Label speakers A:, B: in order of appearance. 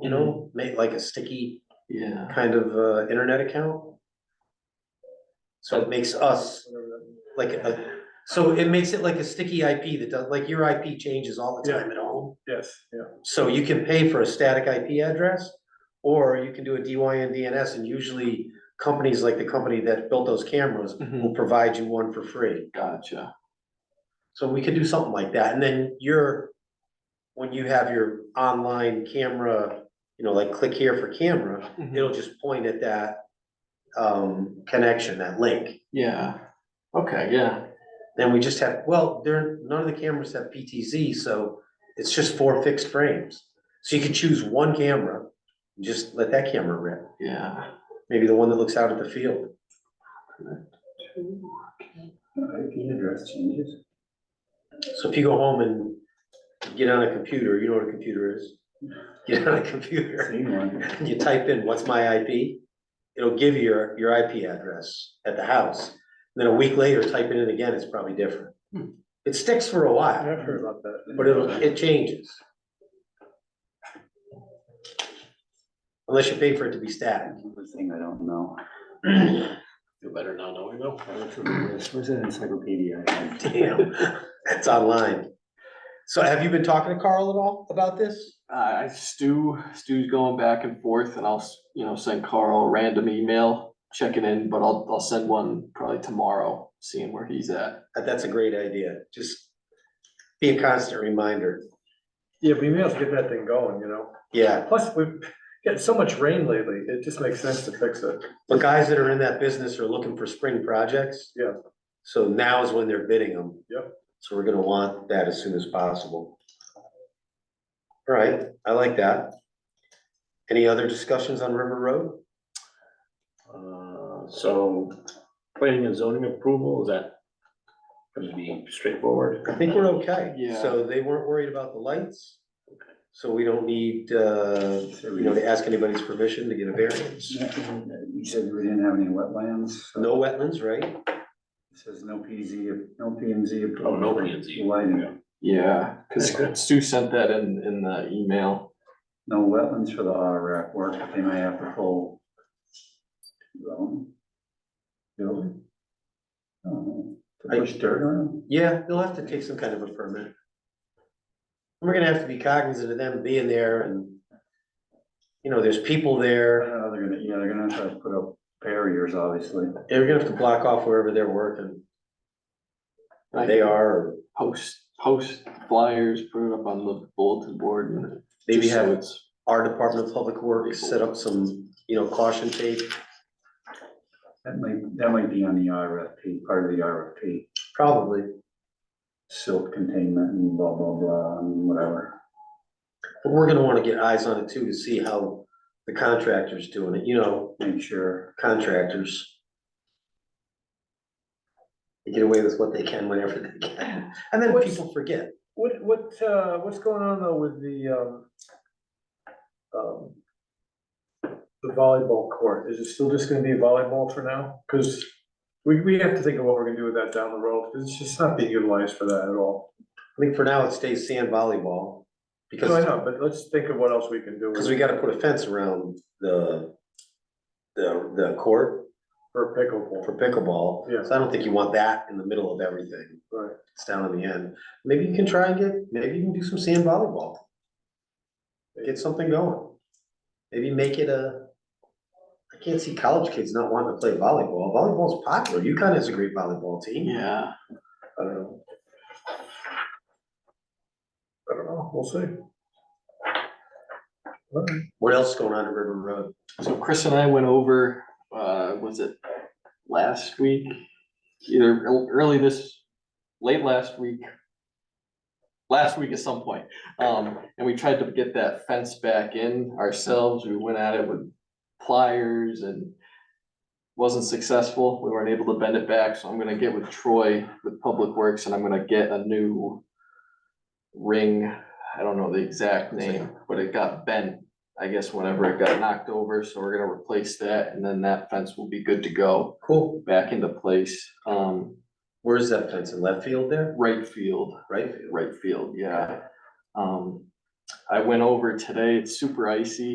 A: you know,
B: Mm-hmm.
A: make like a sticky
C: Yeah.
A: kind of uh internet account. So it makes us like a, so it makes it like a sticky IP that does, like your IP changes all the time at home.
B: Yes, yeah.
A: So you can pay for a static IP address, or you can do a DYN DNS, and usually companies like the company that built those cameras
C: Mm-hmm.
B: Mm-hmm.
A: will provide you one for free.
C: Gotcha.
A: So we could do something like that, and then your, when you have your online camera, you know, like click here for camera,
C: Mm-hmm.
A: it'll just point at that um, connection, that link.
C: Yeah. Okay, yeah.
A: Then we just have, well, there, none of the cameras have PTZ, so it's just four fixed frames. So you could choose one camera, and just let that camera rip,
C: Yeah.
A: maybe the one that looks out at the field.
B: IP address changes.
A: So if you go home and get on a computer, you know what a computer is? Get on a computer,
B: Same one.
A: and you type in, what's my IP? It'll give you your, your IP address at the house. Then a week later, type it in again, it's probably different.
C: Hmm.
A: It sticks for a while.
B: I've heard about that.
A: But it'll, it changes. Unless you pay for it to be static.
B: Another Thing I don't know.
C: You better not know, you
B: Where's that encyclopedia? I had?
A: Damn, that's online. So have you been talking to Carl at all about this?
C: Uh, I- Stu, Stu's going back and forth and I'll, s- you know, send Carl a random email, checking in, but I'll, I'll send one probably tomorrow, seeing where he's at.
A: Uh, That's a great idea. Just be a constant reminder.
B: Yeah, we may as well get that thing going, you know?
A: Yeah,
B: Plus, we've got so much rain lately, it just makes sense to fix it.
A: but guys that are in that business are looking for spring projects.
B: Yeah.
A: So now is when they're bidding them.
B: Yep.
A: So we're gonna want that as soon as possible. All right, I like that. Any other discussions on River Road?
D: Uh, So planning and zoning approval, is that gonna be straightforward?
A: I think we're okay.
C: Yeah.
A: So they weren't worried about the lights. So we don't need, uh, you know, to ask anybody's permission to get a variance.
E: You said we didn't have any wetlands? so
A: No wetlands, right?
E: it Says no PZ, no PMZ.
D: Oh, no PNZ.
E: Lighting,
C: Yeah, cause Stu sent that in, in the email.
E: no wetlands for the RRAC work, but they may have the full zone. Building. Oh, To
A: I-
E: push dirt on
A: Yeah, they'll have to take some kind of a permit. We're gonna have to be cognizant of them being there and, you know, there's people
E: them?
A: there.
E: Uh, They're gonna, yeah, they're gonna have to put up barriers, obviously.
A: They're gonna have to block off wherever they're working.
C: I
A: They are, or
C: Post, post flyers, put it up on the bulletin board and.
A: maybe
C: just so
A: have
C: it's-
A: our Department of Public Works set up some, you know, caution tape.
E: That might, that might be on the RFP, part of the RFP,
A: Probably.
E: silt containment and blah, blah, blah, and whatever.
A: But we're gonna wanna get eyes on it too, to see how the contractor's doing it, you know,
E: Make sure.
A: contractors. They get away with what they can whenever they can, and then
B: What's-
A: people forget.
B: What, what, uh, what's going on though with the, um, um, the volleyball court? Is it still just gonna be volleyball for now? Cause we, we have to think of what we're gonna do with that down the road, 'cause it's just not being utilized for that at all.
A: I think for now it stays sand volleyball,
B: No, I
A: because,
B: know, but let's think of what else we can do. with
A: because we
B: it
A: gotta put a fence around the, the, the court
B: For pickleball,
A: for pickleball.
B: Yeah.
A: So I don't think you want that in the middle of everything,
B: right?
A: it's down in the end. Maybe you can try and get, maybe you can do some sand volleyball. get something going. Maybe make it a, I can't see college kids not wanting to play volleyball. Volleyball's popular. UConn has a great volleyball team.
C: Yeah.
B: I don't know. I don't know, we'll see. All right.
A: What else is going on at River Road?
C: So Chris and I went over, uh, was it last week? Either ear- early this, late last week. Last week at some point, um, and we tried to get that fence back in ourselves. We went at it with pliers and. Wasn't successful. We weren't able to bend it back, so I'm gonna get with Troy with Public Works and I'm gonna get a new. Ring, I don't know the exact name, but it got bent I guess whenever it got knocked over, so we're gonna replace that and then that fence will be good to go
A: Cool.
C: back into place. Um,
A: Where's that fence? In left field there?
C: right field,
A: Right field?
C: right field, yeah. Um, I went over today, it's super icy.